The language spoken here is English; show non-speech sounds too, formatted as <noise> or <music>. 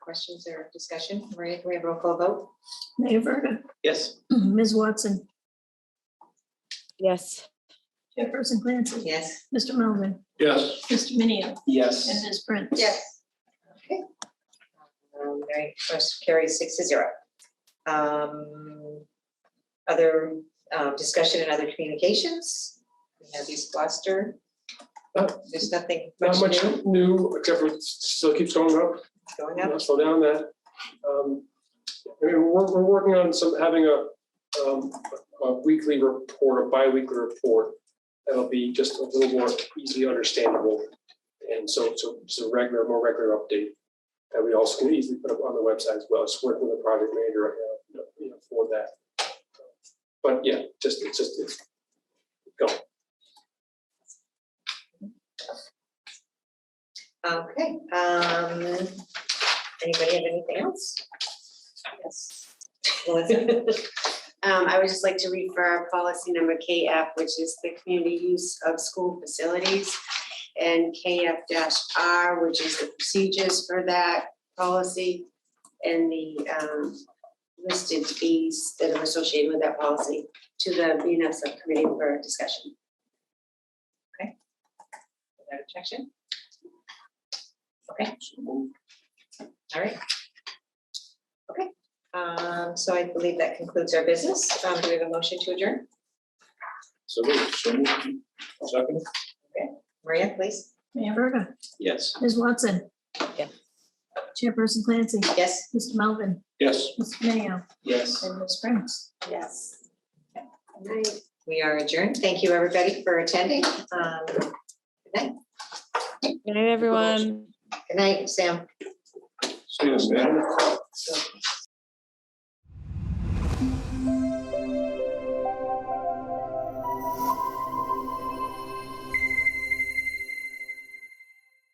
questions or discussion? Maria, can we have a roll call vote? Mayor Verda, <clears throat> Yes. Ms. Watson, Yes. Chairperson Clancy, Yes. Mr. Melvin, Yes. Mr. Minio, and Yes. Ms. Prince. Yes. Okay. Um, Very, first carry six to zero. Um, Other um, discussion and other communications? We have East Gloucester. Oh, There's nothing much Not much new new, except for it still keeps going up. going Yeah, up. slow down that. Um, I mean, we're, we're working on some, having a, um, a weekly report, a bi-weekly report that'll be just a little more easily understandable. And so, so, so regular, more regular update that we also can easily put up on the website as well. It's working with the project manager right now, you know, you know, for that. But yeah, just, it's just, it's Okay. um, Anybody have anything else? Yes. Melissa? Um, I would just like to refer policy number KF, which is the community use of school facilities. And KF R, which is the procedures for that policy and the, um, listed fees that are associated with that policy to the BNF subcommittee for discussion. Without objection? Okay. All right. Okay, um, so I believe that concludes our business. Um, do we have a motion to adjourn? So moved. So moved. Second? Maria, please? Mayor Verda, Yes. Ms. Watson. Yeah. Chairperson Clancy, Yes. Mr. Melvin, Yes. Mr. Minio, Yes. and Ms. Prince. Yes. We are adjourned. Thank you, everybody, for attending. Um, good night, Good night, everyone. good night, Sam. See you, Stan. So-